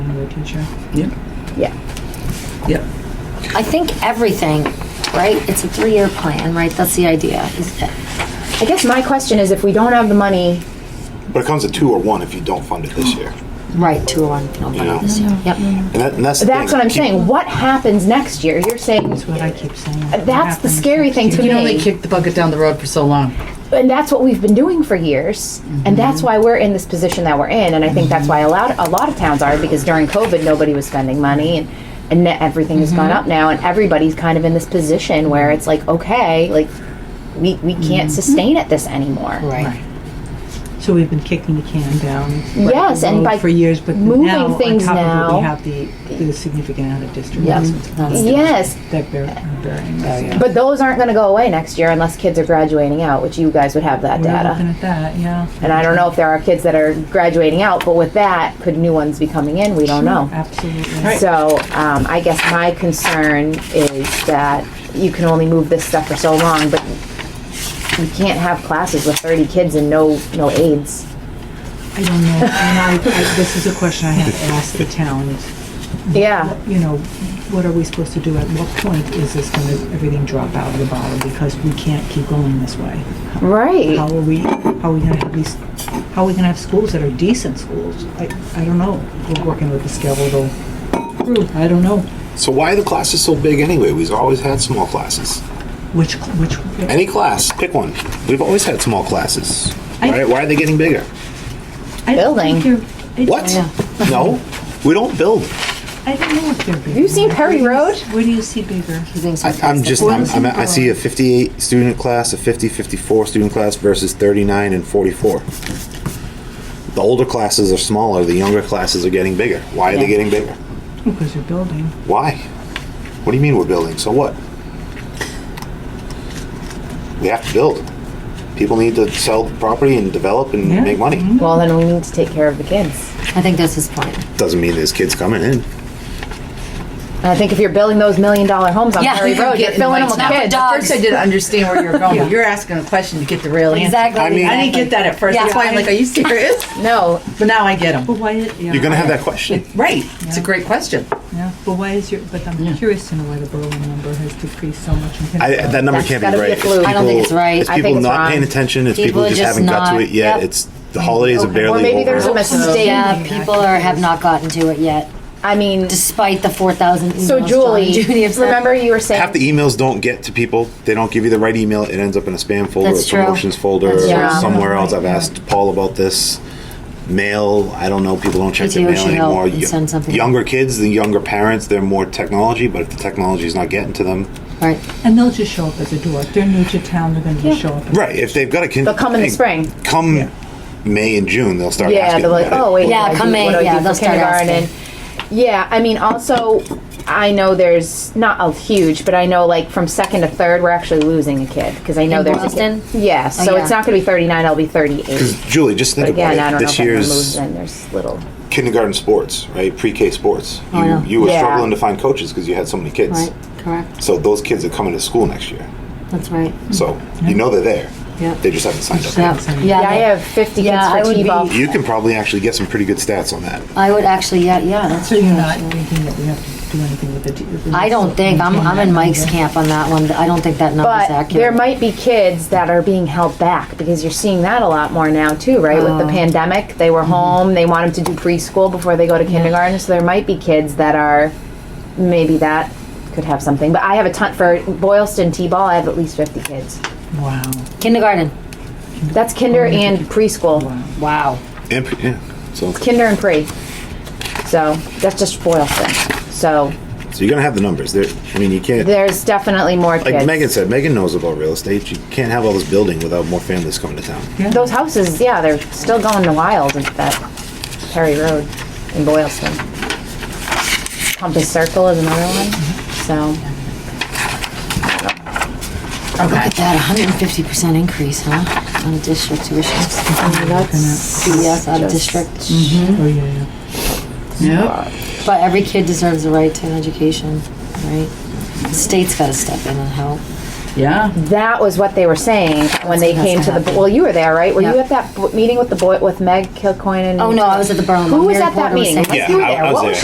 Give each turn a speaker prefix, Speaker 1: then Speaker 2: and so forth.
Speaker 1: teacher.
Speaker 2: Yeah,
Speaker 3: Yeah.
Speaker 2: yeah.
Speaker 4: I think everything, right? It's a three-year plan, right? That's the idea. is that-
Speaker 3: I guess my question is if we don't have the money,
Speaker 5: But it comes to two or one if you don't fund it this year.
Speaker 4: Right, two oh one, no, but
Speaker 5: Yeah.
Speaker 4: obviously, yep.
Speaker 5: And, that, and that's the
Speaker 3: that's
Speaker 5: thing.
Speaker 3: what I'm
Speaker 5: Keep-
Speaker 3: saying. What happens next year? You're saying
Speaker 1: That's what I keep saying.
Speaker 3: that's the scary thing to
Speaker 2: You can only
Speaker 3: me.
Speaker 2: kick the bucket down the road for so long.
Speaker 3: And that's what we've been doing for years. And
Speaker 1: Mm-hmm.
Speaker 3: that's why we're in this position that we're in. And I think that's why a lot, a lot of towns are because during COVID, nobody was spending money and, and ne- everything has
Speaker 1: Mm-hmm.
Speaker 3: gone up now. And everybody's kind of in this position where it's like, okay, like we, we
Speaker 1: Mm-hmm.
Speaker 3: can't sustain it this anymore.
Speaker 2: Right.
Speaker 1: So we've been kicking the can down.
Speaker 3: Yes,
Speaker 1: the
Speaker 3: and
Speaker 1: road
Speaker 3: by
Speaker 1: For years, but
Speaker 3: moving
Speaker 1: now, on
Speaker 3: things
Speaker 1: top of it,
Speaker 3: now-
Speaker 1: we have the, the significant out-of-district
Speaker 4: Yep.
Speaker 1: lessons
Speaker 3: Yes.
Speaker 1: that bear- are bearing us.
Speaker 3: But those aren't going to go away next year unless kids are graduating out, which you guys would have that
Speaker 1: We're
Speaker 3: data.
Speaker 1: looking at that, yeah.
Speaker 3: And I don't know if there are kids that are graduating out, but with that, could new ones be coming in? We don't know.
Speaker 1: Absolutely.
Speaker 3: So um, I guess my concern is that you can only move this stuff for so long, but you can't have classes with 30 kids and no no aides.
Speaker 1: I don't know, and I, I, this is a question I have to ask the towns.
Speaker 3: Yeah.
Speaker 1: You know, what are we supposed to do? At what point is this gonna, everything drop out of the bottle? Because we can't keep going this way.
Speaker 3: Right.
Speaker 1: How are we, how are we gonna have these, how are we gonna have schools that are decent schools? I, I don't know. We're working with the skeletal crew. I don't know.
Speaker 5: So why are the classes so big anyway? We've always had small classes.
Speaker 1: Which, which,
Speaker 5: Any class, pick one. We've always had small classes.
Speaker 1: I-
Speaker 5: Why, why are they getting bigger?
Speaker 1: I don't think
Speaker 3: Building.
Speaker 1: they're- I-
Speaker 5: What? No, we don't build.
Speaker 1: I don't know if they're bigger.
Speaker 3: you seen Perry
Speaker 1: Where do you-
Speaker 3: Road?
Speaker 1: Where do you see bigger?
Speaker 4: He thinks
Speaker 5: I,
Speaker 4: it's-
Speaker 5: I'm just, I'm,
Speaker 1: Where's
Speaker 5: I'm,
Speaker 1: it
Speaker 5: I see a 58 student class, a 50, 54 student class versus 39 and 44. The older classes are smaller, the younger classes are getting bigger. Why are they getting bigger?
Speaker 1: Because you're building.
Speaker 5: Why? What do you mean we're building? So what? We have to build. People need to sell the property and develop and
Speaker 1: Yeah.
Speaker 5: make money.
Speaker 3: Well, then we need to take care of the kids.
Speaker 4: I think that's his point.
Speaker 5: Doesn't mean there's kids coming in.
Speaker 3: And I think if you're building those million dollar homes on Perry
Speaker 2: Oh,
Speaker 3: Road, you're filling them with
Speaker 4: Not for
Speaker 3: kids.
Speaker 4: dogs.
Speaker 2: First, I didn't understand where you were going. You're asking a question to get the real answer.
Speaker 4: Exactly.
Speaker 5: I mean-
Speaker 2: I didn't get that at first.
Speaker 4: Yeah.
Speaker 2: That's why I'm like, are you serious?
Speaker 3: No,
Speaker 2: But now I get them.
Speaker 1: But why, yeah.
Speaker 5: You're gonna have that question.
Speaker 2: Right. It's a great question.
Speaker 1: Yeah, but why is your, but I'm curious to know why the Berlin number has decreased so much in
Speaker 5: I,
Speaker 1: Pittsburgh.
Speaker 5: that number
Speaker 3: That's
Speaker 5: can't
Speaker 3: gotta
Speaker 5: be
Speaker 3: be
Speaker 5: right.
Speaker 3: a fluke.
Speaker 5: It's
Speaker 3: I
Speaker 4: don't think it's right.
Speaker 5: It's
Speaker 3: I
Speaker 5: people
Speaker 3: think it's
Speaker 5: not
Speaker 3: wrong.
Speaker 5: paying attention. It's people,
Speaker 4: People
Speaker 5: just
Speaker 4: just
Speaker 5: haven't got to
Speaker 4: not-
Speaker 5: it yet.
Speaker 4: yep.
Speaker 5: It's the holidays are barely
Speaker 3: or maybe
Speaker 5: over.
Speaker 3: there's a mistake.
Speaker 4: Yeah, people are, have not gotten to it yet,
Speaker 3: I mean,
Speaker 4: despite the four thousand emails.
Speaker 3: so
Speaker 4: John
Speaker 3: Julie,
Speaker 4: and Judy have sent.
Speaker 3: remember you were saying
Speaker 5: Half the emails don't get to people. They don't give you the right email. It ends up in a spam folder,
Speaker 4: That's
Speaker 5: a
Speaker 4: true.
Speaker 5: promotions folder,
Speaker 4: That's
Speaker 5: or
Speaker 4: true. Yeah.
Speaker 5: somewhere else. I've asked Paul about this. Mail, I don't know. People don't check
Speaker 4: Maybe
Speaker 5: their
Speaker 4: we
Speaker 5: mail
Speaker 4: should help
Speaker 5: anymore.
Speaker 4: and
Speaker 5: Yo-
Speaker 4: send something.
Speaker 5: Younger kids, the younger parents, they're more technology. But if the technology is not getting to them,
Speaker 4: Right,
Speaker 1: And they'll just show up as a door. If they're new to town, they're gonna just show up.
Speaker 5: right? If they've got a kid,
Speaker 3: They'll come in the spring.
Speaker 5: Come
Speaker 1: Yeah.
Speaker 5: May and June, they'll start.
Speaker 3: Yeah,
Speaker 5: asking
Speaker 3: they're like,
Speaker 5: about it.
Speaker 3: oh wait,
Speaker 4: Yeah,
Speaker 3: what do I
Speaker 4: come
Speaker 3: do-
Speaker 4: in,
Speaker 3: what do I do
Speaker 4: yeah,
Speaker 3: for
Speaker 4: they'll start
Speaker 3: kindergarten?"
Speaker 4: asking.
Speaker 3: Yeah, I mean, also, I know there's not a huge, but I know like from second to third, we're actually losing a kid because I know
Speaker 4: In
Speaker 3: there's
Speaker 4: Boston? Oh,
Speaker 3: A kid. Yeah, so
Speaker 4: yeah.
Speaker 3: it's not going to be 39. I'll be 38.
Speaker 5: Julie, just think
Speaker 3: But again, I
Speaker 5: about it.
Speaker 3: don't
Speaker 5: This
Speaker 3: know if I'm
Speaker 5: year's
Speaker 3: losing. There's little.
Speaker 5: kindergarten sports, right? Pre-K sports. You,
Speaker 4: I know.
Speaker 5: you were
Speaker 3: Yeah.
Speaker 5: struggling to find coaches because you had so many kids.
Speaker 4: right, correct,
Speaker 5: So those kids are coming to school next year.
Speaker 4: that's right.
Speaker 5: So you know they're there.
Speaker 4: Yep.
Speaker 5: They just haven't signed up.
Speaker 4: Yeah,
Speaker 3: Yeah, I
Speaker 4: they-
Speaker 3: have 50
Speaker 4: Yeah, I
Speaker 3: kids for
Speaker 4: would be-
Speaker 3: T-ball.
Speaker 5: You can probably actually get some pretty good stats on that.
Speaker 4: I would actually, yeah, yeah, that's
Speaker 1: So
Speaker 4: true.
Speaker 1: you're not thinking that we have to do anything with the. t- with the-
Speaker 4: I don't think, I'm, I'm in Mike's camp on that one, I don't think that number's
Speaker 3: But
Speaker 4: accurate.
Speaker 3: there might be kids that are being held back because you're seeing that a lot more now too, right?
Speaker 4: Oh.
Speaker 3: With the pandemic, they were
Speaker 4: Mm-hmm.
Speaker 3: home. They want them to do preschool before they go to kindergarten. So there might be kids that are maybe that could have something. But I have a ton for Boylston T-ball. I have at least 50 kids.
Speaker 1: Wow. Oh,
Speaker 4: Kindergarten,
Speaker 3: That's kinder and preschool,
Speaker 4: Oh, wow.
Speaker 5: And, pre- yeah. So,
Speaker 3: kinder and pre. So that's just Boylston. So
Speaker 5: so you're gonna have the numbers. There. I mean, you can't.
Speaker 3: there's definitely more
Speaker 5: like
Speaker 3: kids.
Speaker 5: Megan said, Megan knows about real estate. You can't have all this building without more families coming to town.
Speaker 3: Those houses, yeah, they're still going wild at that Perry Road in Boylston. Compass Circle is another one, so.
Speaker 4: Look at that, hundred and fifty percent increase, huh, on district tuitions,
Speaker 3: that's
Speaker 4: CES out of
Speaker 3: just-
Speaker 4: district.
Speaker 1: Oh, yeah, yeah.
Speaker 2: Yeah.
Speaker 4: But every kid deserves the right to an education, right? The state's gotta step in and help.
Speaker 2: Yeah.
Speaker 3: That was what they were saying when they
Speaker 4: That's
Speaker 3: came to the,
Speaker 4: happened.
Speaker 3: well, you were there, right? Were you
Speaker 4: Yeah.
Speaker 3: at that bo- meeting with the boy, with Meg Kilcoyne and?
Speaker 4: Oh, no, I was at the Berlin.
Speaker 3: Who
Speaker 4: one.
Speaker 3: was
Speaker 4: Mary
Speaker 3: at that
Speaker 4: Porter was
Speaker 3: meeting?
Speaker 4: saying-
Speaker 3: Was you
Speaker 5: Yeah, I- I
Speaker 3: there?
Speaker 5: was
Speaker 3: What
Speaker 5: there.
Speaker 3: was